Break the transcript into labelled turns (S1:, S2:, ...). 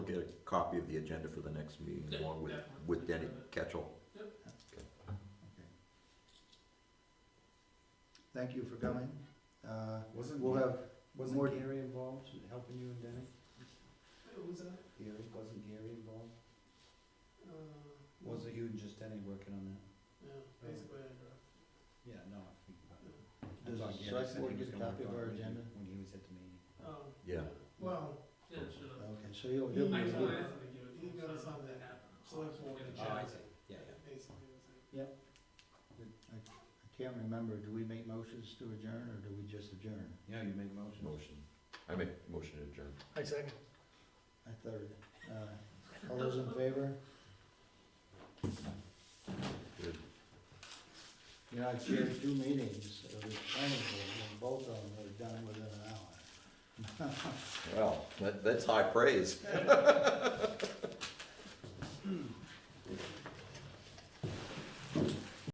S1: get a copy of the agenda for the next meeting
S2: Yeah,
S1: along with,
S2: definitely.
S1: with Denny Ketchel.
S3: Thank you for coming. Uh,
S4: Wasn't,
S3: We'll have, more-
S4: wasn't Gary involved in helping you and Denny?
S2: Who was that?
S4: Gary, wasn't Gary involved?
S2: Uh,
S4: Was it you and just Denny working on that?
S2: Yeah, basically, I dropped.
S4: Yeah, no, I think about it. I
S3: does
S4: thought
S3: the
S4: Gary
S3: select
S4: said he
S3: board
S4: was
S3: get a
S4: gonna
S3: copy of our
S4: work on it when he-
S3: agenda?
S4: When he was at the meeting.
S2: Oh.
S1: Yeah.
S2: Well, yeah, should have.
S3: Okay, so you'll, you'll,
S2: I
S3: be-
S2: told
S3: you'll-
S2: Anthony, to give it, he got us on that app, so I can get a
S4: Oh, I
S2: check.
S4: see, yeah, yeah.
S2: Basically, it was like,
S3: I can't remember, do we make motions to adjourn or do we just adjourn?
S4: Yeah, you made a motion.
S1: Motion. I make motion to adjourn.
S5: I second.
S3: I third. Uh, All those in favor?
S1: Good.
S3: You know, I chaired two meetings of the planning board and both of them were done within an hour.
S1: Well, that, that's high praise.